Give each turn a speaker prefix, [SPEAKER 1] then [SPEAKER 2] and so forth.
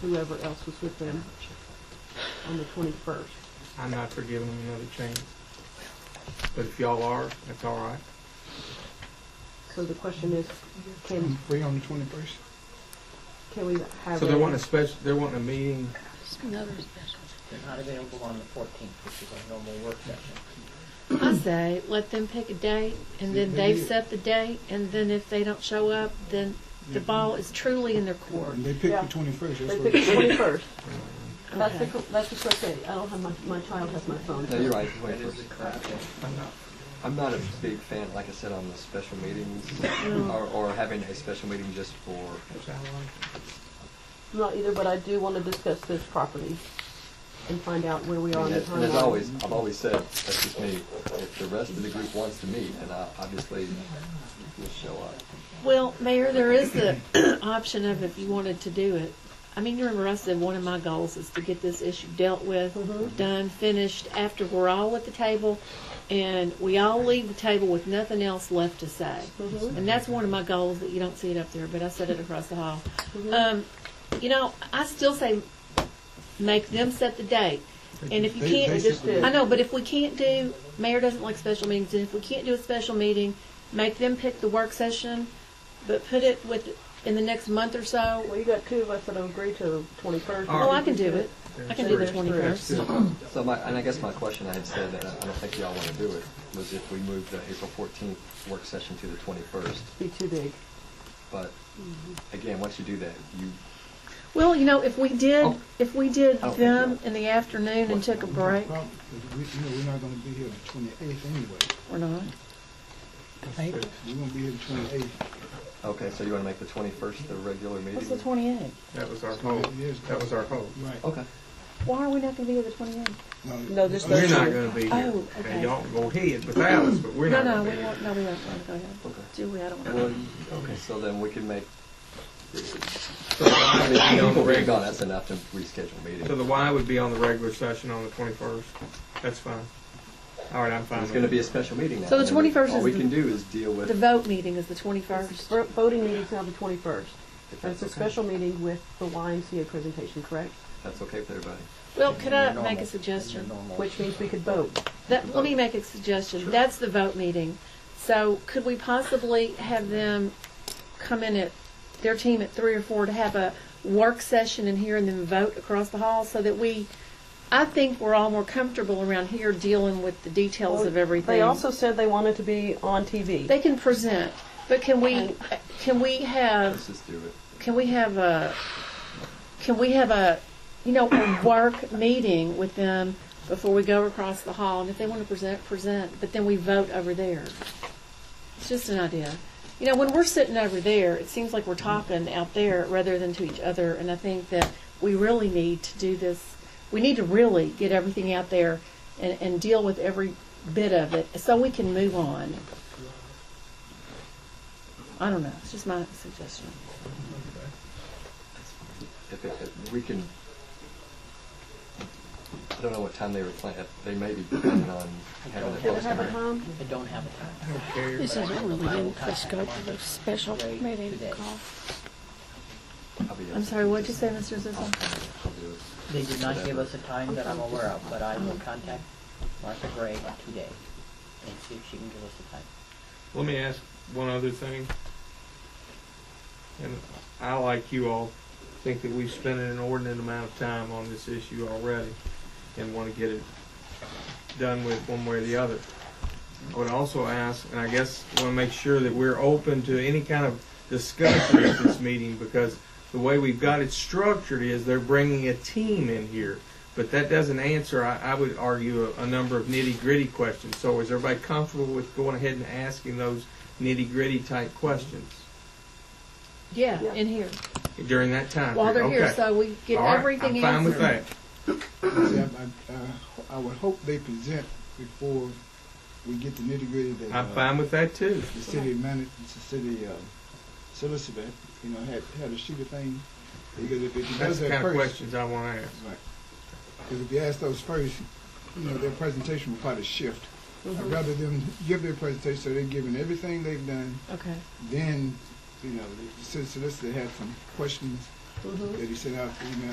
[SPEAKER 1] whoever else was with them on the twenty-first.
[SPEAKER 2] I'm not for giving them another chance. But if y'all are, that's all right.
[SPEAKER 1] So the question is, can,
[SPEAKER 3] Free on the twenty-first?
[SPEAKER 1] can we have?
[SPEAKER 2] So they
[SPEAKER 1] a-
[SPEAKER 2] want a special, they want a meeting,
[SPEAKER 4] Another special.
[SPEAKER 5] They're not available on the fourteenth, which is our normal work session.
[SPEAKER 4] I say, let them pick a date, and then they set the date, and then if they don't show up, then the ball is truly in their court.
[SPEAKER 3] They picked
[SPEAKER 1] Yeah.
[SPEAKER 3] the twenty-first, that's
[SPEAKER 1] They
[SPEAKER 3] what.
[SPEAKER 1] pick the twenty-first. That's the,
[SPEAKER 4] Okay.
[SPEAKER 1] cor- that's the correct date. I don't have my, my child has my phone.
[SPEAKER 6] No, you're right. Wait
[SPEAKER 5] That is the
[SPEAKER 6] first.
[SPEAKER 5] correct date.
[SPEAKER 2] I'm not,
[SPEAKER 6] I'm not a big fan, like I said, on the special meetings
[SPEAKER 4] Um,
[SPEAKER 6] or, or having a special meeting just for.
[SPEAKER 2] that's all right.
[SPEAKER 1] Not either, but I do want to discuss this property and find out where we
[SPEAKER 6] I
[SPEAKER 1] are
[SPEAKER 6] mean,
[SPEAKER 1] in the
[SPEAKER 6] as- And as
[SPEAKER 1] timeline.
[SPEAKER 6] always, I've always said, that's just me. If the rest of the group wants to meet, and I obviously will show up.
[SPEAKER 4] Well, Mayor, there is the option of if you wanted to do it. I mean, you remember I said one of my goals is to get this issue dealt with,
[SPEAKER 1] Mhm.
[SPEAKER 4] done, finished, after we're all at the table, and we all leave the table with nothing else left to say.
[SPEAKER 1] Mhm.
[SPEAKER 4] And that's one of my goals, that you don't see it up there, but I said it across the hall.
[SPEAKER 7] Mm-hmm.
[SPEAKER 1] Mhm.
[SPEAKER 4] Um, you know, I still say make them set the date. And if you
[SPEAKER 3] They-
[SPEAKER 4] can't, uh,
[SPEAKER 3] they
[SPEAKER 1] just
[SPEAKER 3] said-
[SPEAKER 1] do-
[SPEAKER 4] I know, but if we can't do, mayor doesn't like special meetings, and if we can't do a special meeting, make them pick the work session, but put it with, in the next month or
[SPEAKER 1] Well,
[SPEAKER 4] so.
[SPEAKER 1] you got two of us that will agree to twenty-first.
[SPEAKER 2] All right.
[SPEAKER 4] Oh, I can do it. I can do the
[SPEAKER 2] That's
[SPEAKER 4] twenty-first.
[SPEAKER 2] good.
[SPEAKER 6] So my, and I guess my question I had said, that I I don't think y'all want to do it, was if we move the April fourteenth work session to the twenty-first.
[SPEAKER 1] Be too big.
[SPEAKER 6] But again, once you do that, you,
[SPEAKER 4] Well, you know, if we did,
[SPEAKER 6] Oh.
[SPEAKER 4] if we did
[SPEAKER 6] I don't think
[SPEAKER 4] them
[SPEAKER 6] so.
[SPEAKER 4] in the afternoon and took a break,
[SPEAKER 3] Well, We, you know, we're not gonna be here on the twenty-eighth anyway.
[SPEAKER 4] or not,
[SPEAKER 3] We're gonna be here the twenty-eighth.
[SPEAKER 6] okay, so you want to make the twenty-first the regular meeting?
[SPEAKER 7] What's the twenty-eighth?
[SPEAKER 2] That was our hope. Oh, That was our hope.
[SPEAKER 3] Right.
[SPEAKER 6] Okay.
[SPEAKER 7] Why are we not gonna be here the twenty-eighth?
[SPEAKER 1] Oh, No,
[SPEAKER 3] Oh,
[SPEAKER 1] this
[SPEAKER 2] We're
[SPEAKER 1] doesn't-
[SPEAKER 2] not gonna be here.
[SPEAKER 7] Oh, okay.
[SPEAKER 2] And y'all can go ahead without us, but we're
[SPEAKER 4] no,
[SPEAKER 2] not
[SPEAKER 4] no,
[SPEAKER 2] gonna
[SPEAKER 4] we
[SPEAKER 2] be here.
[SPEAKER 4] won't, no, we won't, go ahead.
[SPEAKER 6] Okay.
[SPEAKER 4] Do we, I don't
[SPEAKER 6] Well,
[SPEAKER 4] know.
[SPEAKER 6] okay, so then we can make,
[SPEAKER 2] So the Y would be on the
[SPEAKER 6] people being
[SPEAKER 2] regular-
[SPEAKER 6] gone, Oh, that's enough to reschedule meetings.
[SPEAKER 2] so the Y would be on the regular session on the twenty-first. That's fine. All right, I'm fine.
[SPEAKER 6] It's
[SPEAKER 2] with
[SPEAKER 6] gonna be a
[SPEAKER 2] it.
[SPEAKER 6] special meeting now.
[SPEAKER 4] So the
[SPEAKER 6] and we-
[SPEAKER 4] 21st
[SPEAKER 6] All
[SPEAKER 4] is
[SPEAKER 6] we
[SPEAKER 4] the-
[SPEAKER 6] can do is deal with.
[SPEAKER 4] The vote meeting is the twenty-first.
[SPEAKER 1] Vo- Voting meeting's now the twenty-first.
[SPEAKER 6] if
[SPEAKER 1] That's a
[SPEAKER 6] okay.
[SPEAKER 1] special meeting with the YMCA presentation, correct?
[SPEAKER 6] That's okay with everybody.
[SPEAKER 4] Well, could I
[SPEAKER 5] Normal-
[SPEAKER 4] make a suggestion?
[SPEAKER 5] normal-
[SPEAKER 1] Which means we could vote.
[SPEAKER 4] That, let me make a suggestion. That's the vote meeting. So could we possibly have them come in at, their team at three or four to have a work session in here and then vote across the hall so that we, I think we're all more comfortable around here dealing with the details of everything.
[SPEAKER 1] They also said they wanted to be on TV.
[SPEAKER 4] They can present, but can we, can we have
[SPEAKER 6] Let's just do it.
[SPEAKER 4] can we have a, can we have a, you know, a work meeting with them before we go across the hall? And if they want to present, present, but then we vote over there. It's just an idea. You know, when we're sitting over there, it seems like we're talking out there rather than to each other. And I think that we really need to do this. We need to really get everything out there and, and deal with every bit of it so we can move on. I don't know. It's just my suggestion.
[SPEAKER 6] If, it- if we can, I don't know what time they were planning, they may be planning on having
[SPEAKER 1] Do
[SPEAKER 6] it
[SPEAKER 1] they
[SPEAKER 6] posted.
[SPEAKER 1] have a time?
[SPEAKER 5] I don't have a time.
[SPEAKER 2] I don't care.
[SPEAKER 8] This is really in the scope of a special meeting call.
[SPEAKER 6] I'll be-
[SPEAKER 4] I'm sorry, what'd you say, Mr. Zissou?
[SPEAKER 6] I'll do it.
[SPEAKER 5] They did not give us a time that I'm aware of, but I will contact Martha Gray today and see if she can give us a time.
[SPEAKER 2] Let me ask one other thing. And I, like you all, think that we've spent an inordinate amount of time on this issue already and want to get it done with one way or the other. I would also ask, and I guess want to make sure that we're open to any kind of discussion at this meeting because the way we've got it structured is they're bringing a team in here. But that doesn't answer, I, I would argue, a, a number of nitty gritty questions. So is everybody comfortable with going ahead and asking those nitty gritty type questions
[SPEAKER 4] Yeah, in here,
[SPEAKER 2] during that time?
[SPEAKER 4] while they're here,
[SPEAKER 2] Okay.
[SPEAKER 4] so we get
[SPEAKER 2] All right,
[SPEAKER 4] everything
[SPEAKER 2] I'm fine with
[SPEAKER 4] answered.
[SPEAKER 2] that.
[SPEAKER 3] Yeah, I, I- I would hope they present before we get the nitty-gritty that.
[SPEAKER 2] I'm
[SPEAKER 3] uh,
[SPEAKER 2] fine with that too.
[SPEAKER 3] The city manager, the city uh, solicitor, you know, had, had a sheet of things, because if it
[SPEAKER 2] That's
[SPEAKER 3] does
[SPEAKER 2] the
[SPEAKER 3] that
[SPEAKER 2] kind of
[SPEAKER 3] first.
[SPEAKER 2] questions I want to ask.
[SPEAKER 3] Because if you ask those first, you know, their presentation will probably shift.
[SPEAKER 1] Mm-hmm.
[SPEAKER 3] I'd rather them give their presentation, so they're giving everything they've done,
[SPEAKER 4] Okay.
[SPEAKER 3] then, you know, the city solicitor had some questions
[SPEAKER 1] Mhm.
[SPEAKER 3] that he sent out, you know,